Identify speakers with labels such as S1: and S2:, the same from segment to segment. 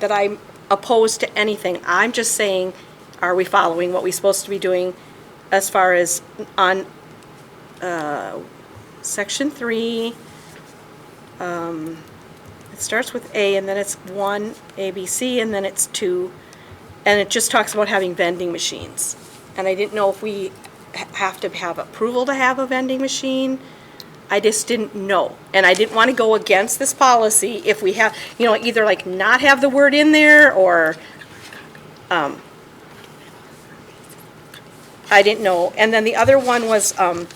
S1: that I'm opposed to anything. I'm just saying, are we following what we're supposed to be doing as far as on uh, section three? um, It starts with A, and then it's one, A, B, C, and then it's two, and it just talks about having vending machines. And I didn't know if we ha- have to have approval to have a vending machine. I just didn't know. And I didn't want to go against this policy if we have, you know, either like not have the word in there or, um, I didn't know. And then the other one was, um,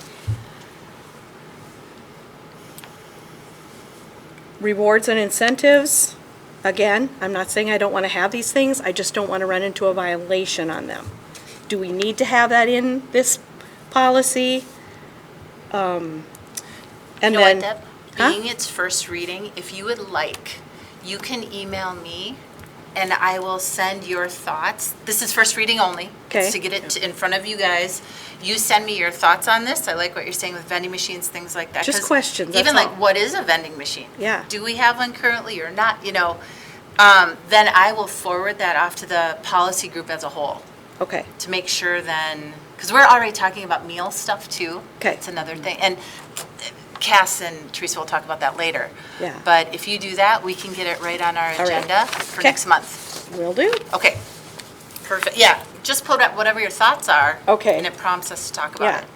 S1: rewards and incentives. Again, I'm not saying I don't want to have these things, I just don't want to run into a violation on them. Do we need to have that in this policy? Um, And
S2: You know
S1: then.
S2: what, Deb?
S1: Huh?
S2: Being its first reading, if you would like, you can email me and I will send your thoughts. This is first reading only.
S1: Okay.
S2: It's to get it to- in front of you guys. You send me your thoughts on this. I like what you're saying with vending machines, things like that.
S1: Just
S2: 'Cause
S1: questions, that's
S2: Even
S1: all.
S2: like, what is a vending machine?
S1: Yeah.
S2: Do we have one currently or not, you know? Um, Then I will forward that off to the policy group as a whole
S1: Okay,
S2: to make sure then, because we're already talking about meal stuff too.
S1: 'Kay.
S2: It's another thing, and Cass and Teresa will talk about that later.
S1: Yeah.
S2: But if you do that, we can get it right on our
S1: right.
S2: agenda for
S1: 'Kay.
S2: next month.
S1: will do.
S2: Okay, perfect, yeah, just put up whatever your thoughts are.
S1: Okay.
S2: And it prompts us to talk
S1: Yeah.
S2: about it.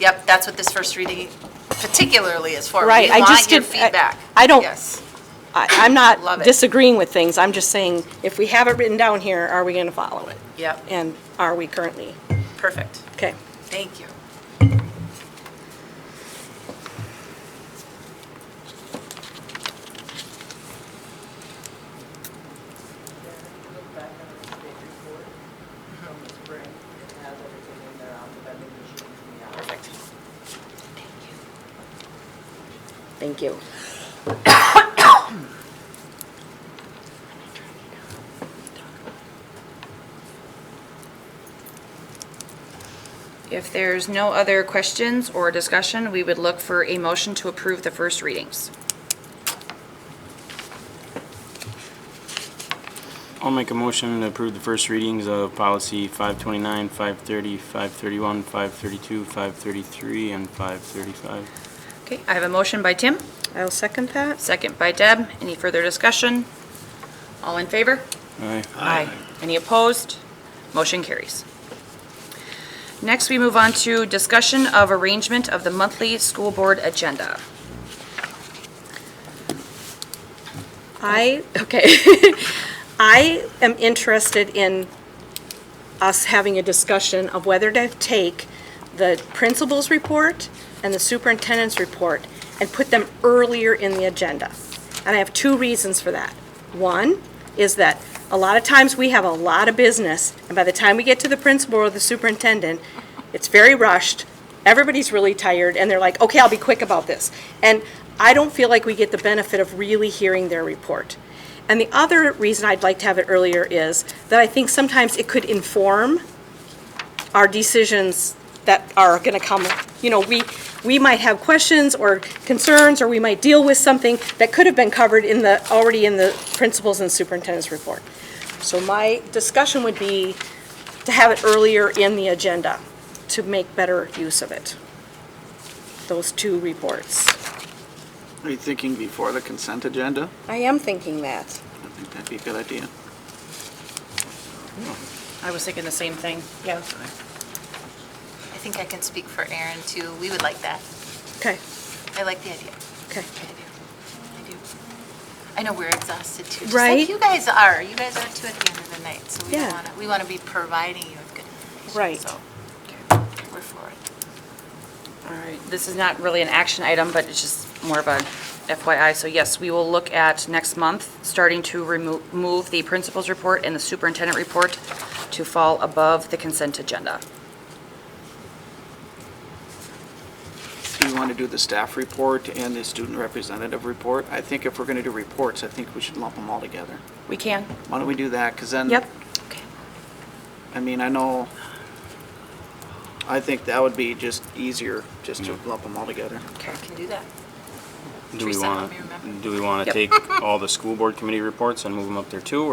S2: Yep, that's what this first reading particularly is for.
S1: Right, I just
S2: We want your
S1: did- I-
S2: feedback.
S1: I don't-
S2: Yes,
S1: I, I'm
S2: Love
S1: not
S2: it.
S1: disagreeing with things, I'm just saying, if we have it written down here, are we gonna follow it?
S2: yep,
S1: And are we currently?
S2: perfect,
S1: Okay,
S2: thank you.
S3: Look back at the state report from the spring, it has everything in there on the vending machines and the hours.
S2: Perfect.
S1: thank you.
S4: If there's no other questions or discussion, we would look for a motion to approve the first readings.
S5: I'll make a motion to approve the first readings of policy 529, 530, 531, 532, 533, and 535.
S4: Okay, I have a motion by Tim,
S1: I'll second that.
S4: second by Deb. Any further discussion? All in favor?
S5: Aye.
S4: Aye. Any opposed? Motion carries. Next, we move on to discussion of arrangement of the monthly school board agenda.
S1: I, okay. I am interested in us having a discussion of whether to take the principal's report and the superintendent's report and put them earlier in the agenda. And I have two reasons for that. One is that a lot of times we have a lot of business, and by the time we get to the principal or the superintendent, it's very rushed, everybody's really tired, and they're like, okay, I'll be quick about this. And I don't feel like we get the benefit of really hearing their report. And the other reason I'd like to have it earlier is that I think sometimes it could inform our decisions that are going to come, you know, we, we might have questions or concerns, or we might deal with something that could have been covered in the, already in the principals and superintendent's report. So my discussion would be to have it earlier in the agenda, to make better use of it. Those two reports.
S6: Are you thinking before the consent agenda?
S1: I am thinking that.
S6: I think that'd be a good idea.
S4: I was thinking the same thing.
S1: Yeah.
S2: I think I can speak for Aaron too. We would like that.
S1: Okay,
S2: I like the idea.
S1: okay.
S2: I do. I do. I know we're exhausted too, just
S1: Right?
S2: like you guys are. You guys are too at the end of the night, so we
S1: Yeah.
S2: don't want to, we want to be providing you with good information.
S1: Right.
S2: So we're for it.
S4: All right, this is not really an action item, but it's just more of a FYI. So yes, we will look at next month, starting to remo- remove the principal's report and the superintendent report to fall above the consent agenda.
S6: Do you want to do the staff report and the student representative report? I think if we're going to do reports, I think we should lump them all together.
S4: We can?
S6: Why don't we do that? Because then.
S4: Yep. Okay.
S6: I mean, I know, I think that would be just easier, just to lump them all together.
S2: Okay, can do that.
S5: Do we
S2: Teresa,
S5: want
S2: help me remember.
S5: to, do we want to
S4: Yep.
S5: take all the school board committee reports and move them up there too, or